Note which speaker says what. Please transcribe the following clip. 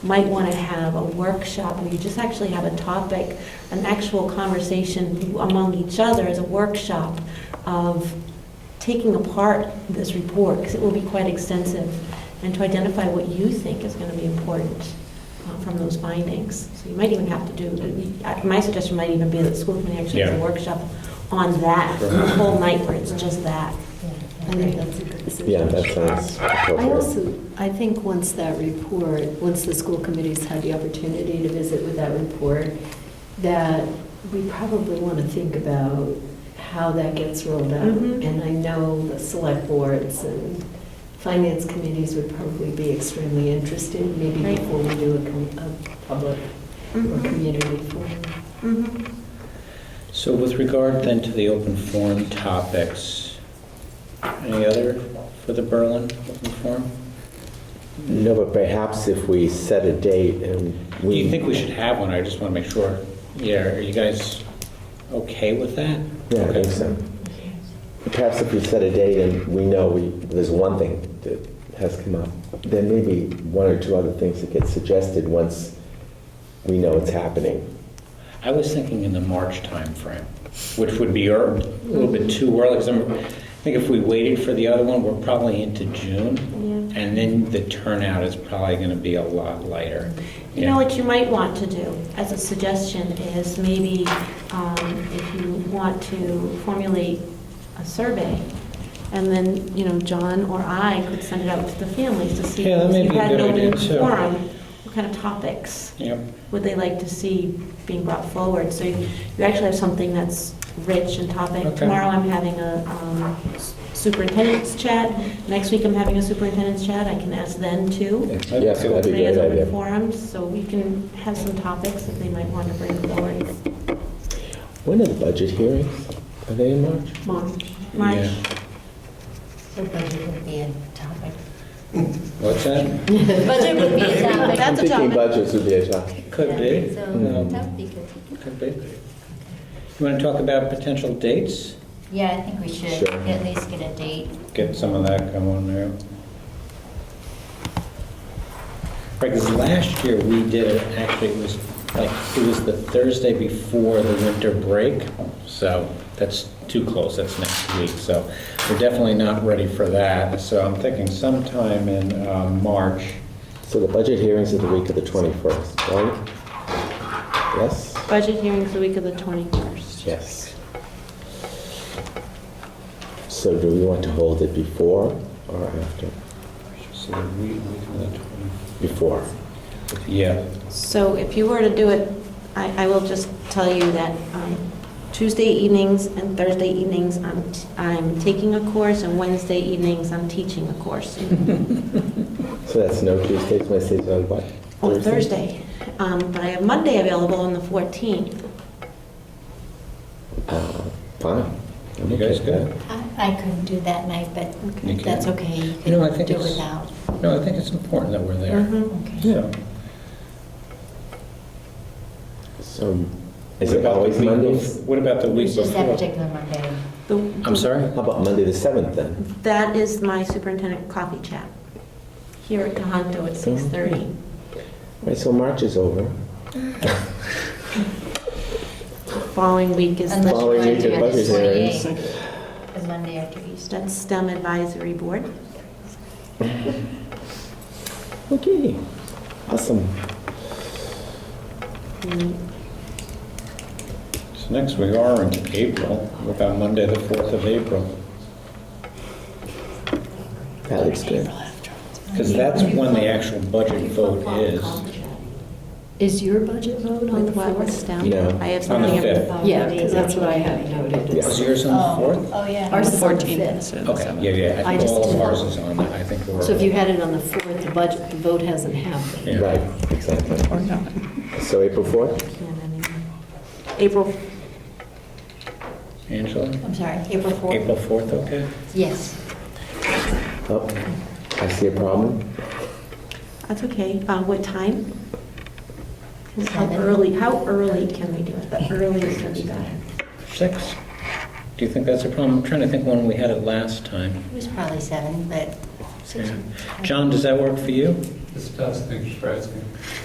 Speaker 1: might want to have a workshop, where you just actually have a topic, an actual conversation among each other as a workshop of taking apart this report, because it will be quite extensive, and to identify what you think is going to be important uh, from those findings. So you might even have to do, I- my suggestion might even be that the school committee actually has a
Speaker 2: Yeah.
Speaker 1: workshop on that, a whole night where it's just that.
Speaker 3: I think that's a good suggestion.
Speaker 4: Yeah, that sounds
Speaker 3: I
Speaker 4: appropriate.
Speaker 3: also, I think once that report, once the school committee's had the opportunity to visit with that report, that we probably want to think about how that gets rolled out.
Speaker 1: Mhm.
Speaker 3: And I know the select boards and finance committees would probably be extremely interested, maybe
Speaker 1: Right. Mm-hmm.
Speaker 3: before we do a com- a public or community forum.
Speaker 1: Mhm.
Speaker 2: So with regard then to the open forum topics, any other for the Berlin open forum?
Speaker 4: No, but perhaps if we set a date and
Speaker 2: Do
Speaker 4: we...
Speaker 2: you think we should have one? I just want to make sure. Yeah, are you guys okay with that?
Speaker 4: Yeah, I think
Speaker 2: Okay.
Speaker 4: so. Perhaps if we set a date and we know we, there's one thing that has come up, there may be one or two other things that get suggested once we know it's happening.
Speaker 2: I was thinking in the March timeframe, which would be ear- a little bit too early, because I think if we waited for the other one, we're probably into June,
Speaker 1: Yeah.
Speaker 2: and then the turnout is probably going to be a lot lighter.
Speaker 1: You know what you might want to do as a suggestion is maybe um, if you want to formulate a survey, and then, you know, John or I could send it out to the families to see
Speaker 2: Yeah, that may
Speaker 1: if
Speaker 2: be
Speaker 1: you
Speaker 2: a
Speaker 1: had
Speaker 2: good
Speaker 1: an
Speaker 2: idea,
Speaker 1: open
Speaker 2: too.
Speaker 1: forum, what kind of topics
Speaker 2: Yep.
Speaker 1: would they like to see being brought forward? So you you actually have something that's rich in topic.
Speaker 2: Okay.
Speaker 1: Tomorrow I'm having a um, superintendent's chat, next week I'm having a superintendent's chat, I can ask then too.
Speaker 4: Yes, that'd be a
Speaker 1: May as
Speaker 4: great
Speaker 1: open
Speaker 4: idea.
Speaker 1: forums, so we can have some topics that they might want to bring forward.
Speaker 4: When are the budget hearings? Are they in March?
Speaker 1: March, March,
Speaker 2: Yeah.
Speaker 5: So budget would be a topic.
Speaker 2: What's that?
Speaker 5: Budget would be a topic.
Speaker 1: That's a
Speaker 4: I'm thinking
Speaker 1: topic.
Speaker 4: budgets would be a topic.
Speaker 2: Could be.
Speaker 5: So
Speaker 2: Um,
Speaker 5: that would be good.
Speaker 2: Could be. You want to talk about potential dates?
Speaker 5: Yeah, I think we should
Speaker 4: Sure.
Speaker 5: at least get a date.
Speaker 2: Get some of that going there. Right, 'cause last year we did it, actually, it was like, it was the Thursday before the winter break, so that's too close, that's next week, so we're definitely not ready for that. So I'm thinking sometime in um, March.
Speaker 4: So the budget hearings are the week of the 21st, right? Yes?
Speaker 1: budget hearings the week of the 21st.
Speaker 4: Yes. So do we want to hold it before or after?
Speaker 2: So the week week of the 20
Speaker 4: Before.
Speaker 2: Yeah,
Speaker 1: So if you were to do it, I, I will just tell you that um, Tuesday evenings and Thursday evenings, I'm, t- I'm taking a course, and Wednesday evenings, I'm teaching a course.
Speaker 4: So that's no Tuesdays, Wednesdays, or what?
Speaker 1: On Oh, Thursday, Um, but I have Monday available on the 14th.
Speaker 4: Uh, Fine. I'm
Speaker 2: You guys
Speaker 4: okay with
Speaker 2: good?
Speaker 4: that.
Speaker 5: I I couldn't do that night, but
Speaker 2: You can.
Speaker 5: that's okay. You
Speaker 2: You know, I
Speaker 5: can
Speaker 2: think
Speaker 5: do
Speaker 2: it's-
Speaker 5: without.
Speaker 2: no, I think it's important that we're there.
Speaker 1: Mhm.
Speaker 5: Okay.
Speaker 2: So,
Speaker 4: So,
Speaker 2: what
Speaker 4: is it
Speaker 2: about the
Speaker 4: always
Speaker 2: week
Speaker 4: Mondays?
Speaker 2: bef- What about the week
Speaker 5: It's just that
Speaker 2: before?
Speaker 5: particular Monday.
Speaker 1: The-
Speaker 2: I'm sorry?
Speaker 4: How about Monday the 7th then?
Speaker 1: That is my superintendent coffee chat here at Tohoto at 6:30.
Speaker 4: All Right, so March is over.
Speaker 1: Following week is
Speaker 5: Unless you
Speaker 1: the
Speaker 4: Following
Speaker 5: wanna
Speaker 4: week
Speaker 5: do
Speaker 4: of
Speaker 5: it
Speaker 4: budget
Speaker 5: the
Speaker 4: hearings.
Speaker 5: 28th, The Monday after Easter.
Speaker 1: that's STEM Advisory Board.
Speaker 4: Okay, awesome.
Speaker 1: Mm,
Speaker 2: So next we are in April, What about Monday, the 4th of April,
Speaker 4: That looks good.
Speaker 2: because that's when the actual budget vote is.
Speaker 3: Is your budget vote on the
Speaker 1: With what,
Speaker 3: 4th?
Speaker 1: STEM?
Speaker 4: No.
Speaker 1: I have
Speaker 2: On the
Speaker 1: something at the
Speaker 2: fifth.
Speaker 1: bottom.
Speaker 3: Yeah, because that's what I had noted.
Speaker 4: Yeah.
Speaker 2: Is yours on the
Speaker 5: Oh, yeah.
Speaker 3: Ours
Speaker 6: The
Speaker 3: is on the
Speaker 6: 14th
Speaker 3: 5th.
Speaker 6: instead
Speaker 2: 4th?
Speaker 6: of the
Speaker 2: Okay,
Speaker 6: 7th.
Speaker 2: yeah, yeah, I
Speaker 3: I
Speaker 2: think
Speaker 3: just
Speaker 2: all of
Speaker 3: did
Speaker 2: ours
Speaker 3: not.
Speaker 2: is on, that. I think we're.
Speaker 3: So if you had it on the 4th, the budget, the vote hasn't happened.
Speaker 2: Yeah.
Speaker 4: Right, exactly.
Speaker 6: Or no.
Speaker 4: So April 4th?
Speaker 1: Can't anymore. April,
Speaker 2: Angela?
Speaker 5: I'm sorry, April 4th?
Speaker 2: April 4th, okay?
Speaker 5: Yes.
Speaker 4: Oh, I see a problem.
Speaker 1: that's okay. Uh, What time? How
Speaker 5: Seven.
Speaker 1: early, how early can we do it? The earliest would be better.
Speaker 2: 6? Do you think that's a problem? I'm trying to think when we had it last time.
Speaker 5: It was probably seven, but six.
Speaker 2: Yeah. John, does that work for you?
Speaker 6: This does, thanks for asking.